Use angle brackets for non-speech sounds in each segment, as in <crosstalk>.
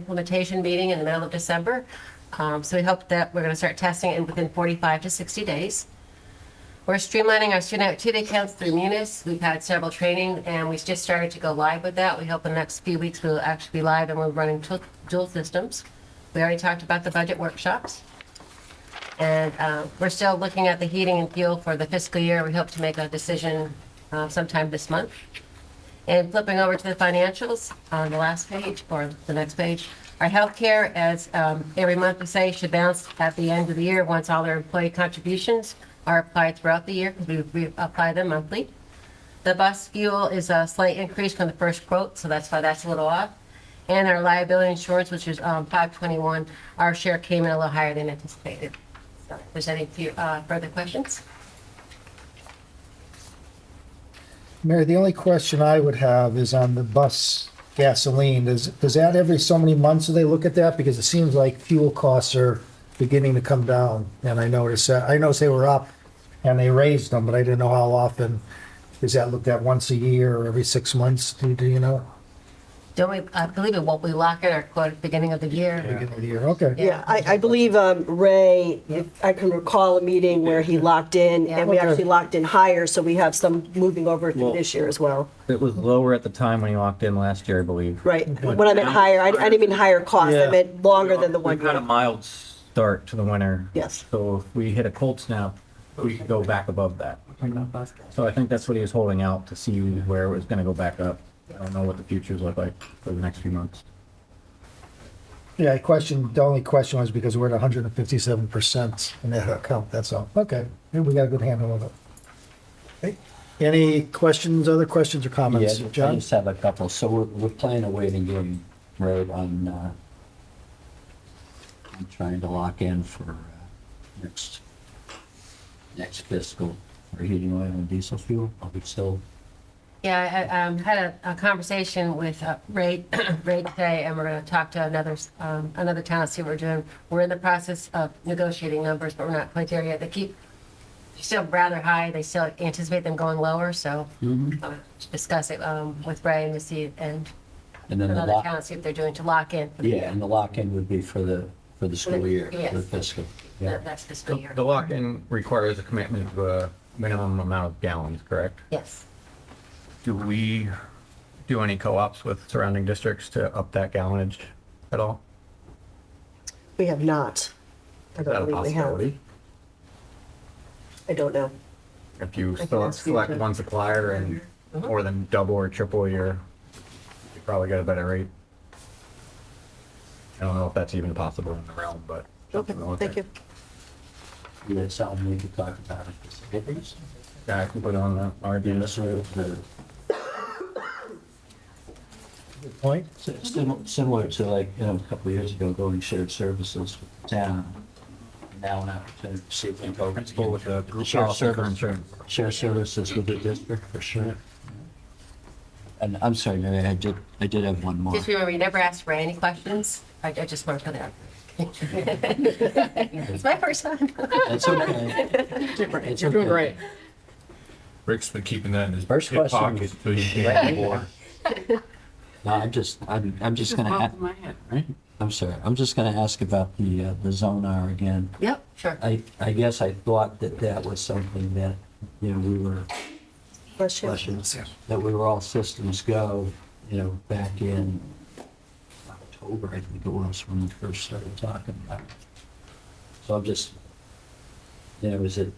implementation meeting in the middle of December. Um, So we hope that we're going to start testing it within 45 to 60 days. We're streamlining our student activity accounts through Munis. We've had several training and we just started to go live with that. We hope in the next few weeks we'll actually be live and we're running tu- dual systems. We already talked about the budget workshops. And uh, we're still looking at the heating and fuel for the fiscal year. We hope to make a decision uh, sometime this month. And flipping over to the financials on the last page or the next page, our healthcare, as um, every month we say, should bounce at the end of the year once all our employee contributions are applied throughout the year because we we apply them monthly. The bus fuel is a slight increase from the first quote, so that's why that's a little off. And our liability insurance, which is um, 521, our share came in a little higher than anticipated. So if there's any few, uh, further questions? Mary, the only question I would have is on the bus gasoline. Does, does that every so many months do they look at that? Because it seems like fuel costs are beginning to come down. And I noticed that, I noticed they were up and they raised them, but I didn't know how often. Is that looked at once a year or every six months? Do, do you know? Don't we, I believe it won't be locked in our quote at the beginning of the year. Beginning of the year, okay. Yeah. Yeah, I, I believe um, Ray, if I can recall a meeting where he locked in, and we Yeah. actually locked in higher, so we have some moving over through Well- this year as well. It was lower at the time when you walked in last year, I believe. Right, when I meant higher, I I didn't mean higher cost, I Yeah. meant longer than the one We've had a year. mild start to the winter. Yes. So if we hit a cold snap, we could go back above that. So I think that's what he was holding out to see where it was gonna go back up. I don't know what the futures look like for the next few months. Yeah, I questioned, the only question was because we're at hundred and fifty-seven percent in that account, that's all. Okay, maybe we got a good handle of it. Okay. Any questions, other questions or comments? Yeah, I John? just have a couple. So we're, we're playing a waiting game, right, on, uh, I'm trying to lock in for, uh, next, next fiscal for heating oil and diesel fuel. Are we still, Yeah, I um, had a, a conversation with uh, Ray, <clears throat> Ray today, and we're going to talk to another, s- um, another town, see what we're doing. We're in the process of negotiating numbers, but we're not quite there yet. They keep, they're still rather high. They still anticipate them going lower, so I'll discuss it um, with Ray and to see, and Mm-hmm. and then the another lock, town, see what they're doing to lock in. for the- yeah, and the lock-in would be for the, for the school year, for the Yes. fiscal. the- That's fiscal year. The lock-in requires a commitment of a minimum amount of gallons, correct? Yes. Do we do any co-ops with surrounding districts to up that gallonage at all? We have not. I Is that don't a believe we have. possibility? I don't know. If you can select- ask you select to- one supplier and Uh-huh. more than double or triple your, you probably get a better rate. I don't know if that's even possible in the realm, but. Okay, thank you. Does that something we could talk about at this conference? Yeah, I can put on that Yeah, RDS. so the- Point? So it's sim- Similar to like, you know, a couple of years ago, going shared services with the town. Now an opportunity to see if we can go. Principal with the group Share policy for service- insurance. Share services with the district for sure. And I'm sorry, Mary, I did, I did have one more. Just remember, you never asked Ray any questions. I I just want to put <laughs> that. <laughs> It's my first time. That's okay. It's okay. Rick's been keeping that in his First hip question pocket was- so he can more. No, I'm just, I'm, I'm just gonna. a- Right? I'm sorry. I'm just gonna ask about the, uh, the Zonar again. Yep, sure. I, I guess I thought that that was something that, you know, we were Bless you. questions, that we were all systems go, you know, back in October, I think it was, when we first started talking about it. So I'm just, you know, is it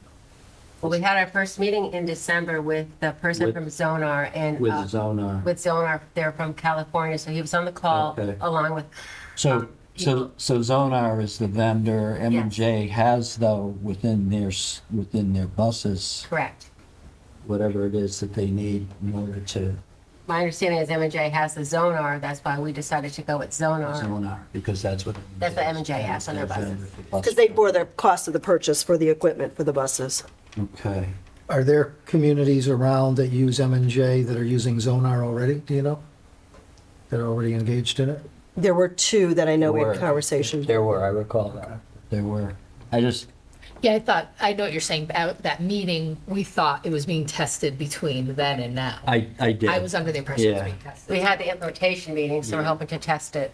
Well, we had our first meeting in December with the person With- from Zonar and, with uh, Zonar? with Zonar, they're from California, so he was on the call Okay. along with, So, um, so, so Zonar is the vendor, M and J has though, within their, s- within their buses, correct. whatever it is that they need in order to My understanding is M and J has the Zonar, that's why we decided to go with Zonar. Zonar, because that's what. That's what M&J has on their buses. Because they bore the cost of the purchase for the equipment for the buses. Okay. Are there communities around that use M and J that are using Zonar already? Do you know? That are already engaged in it? There were two that I know we Were. had conversation. There were, I recall that. There were. I just, Yeah, I thought, I know what you're saying, but at that meeting, we thought it was being tested between then and now. I, I did. I was under the impression it was Yeah. being We tested. had the implementation meeting, so we're hoping to test it